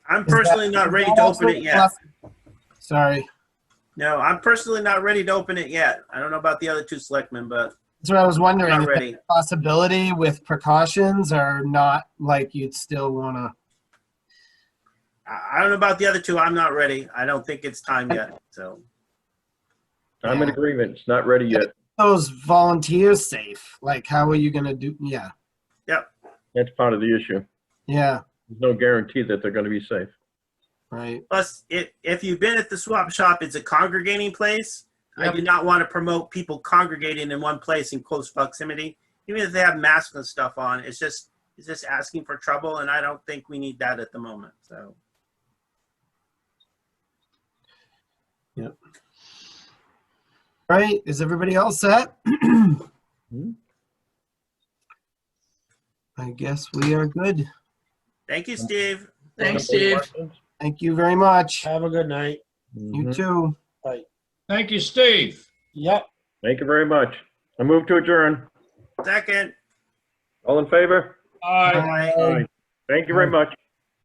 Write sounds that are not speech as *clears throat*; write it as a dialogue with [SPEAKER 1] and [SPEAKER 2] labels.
[SPEAKER 1] I'm
[SPEAKER 2] that-
[SPEAKER 1] personally not ready to open it yet.
[SPEAKER 2] Sorry.
[SPEAKER 1] No, I'm personally not ready to open it yet. I don't know about the other two selectmen, but
[SPEAKER 2] That's what I was wondering.
[SPEAKER 1] not
[SPEAKER 2] Is that
[SPEAKER 1] ready.
[SPEAKER 2] a possibility with precautions or not like you'd still want to?
[SPEAKER 1] I I don't know about the other two. I'm not ready. I don't think it's time yet, so.
[SPEAKER 3] I'm in
[SPEAKER 2] Yeah.
[SPEAKER 3] agreement. It's not ready yet.
[SPEAKER 2] Those volunteers safe. Like, how are you going to do? Yeah.
[SPEAKER 3] That's part of the issue.
[SPEAKER 2] Yeah.
[SPEAKER 3] There's no guarantee that they're going to be safe.
[SPEAKER 2] Right.
[SPEAKER 1] Plus, it, if you've been at the swap shop, it's a congregating place. I
[SPEAKER 2] Yep.
[SPEAKER 1] do not want to promote people congregating in one place in close proximity, even if they have masks and stuff on. It's just it's just asking for trouble, and I don't think we need that at the moment. So,
[SPEAKER 2] Right. Is everybody else set? *clears throat* I guess we are good.
[SPEAKER 1] thank you, Steve.
[SPEAKER 4] Thanks, Steve.
[SPEAKER 2] Thank you very much.
[SPEAKER 5] Have a good night.
[SPEAKER 2] You
[SPEAKER 4] Mm-hmm.
[SPEAKER 3] Mhm.
[SPEAKER 2] too.
[SPEAKER 4] Thank you, Steve.
[SPEAKER 5] Yep.
[SPEAKER 3] Thank you very much. I move to adjourn.
[SPEAKER 1] Second,
[SPEAKER 3] All in favor?
[SPEAKER 4] All right.
[SPEAKER 1] Bye.
[SPEAKER 3] Thank you very much.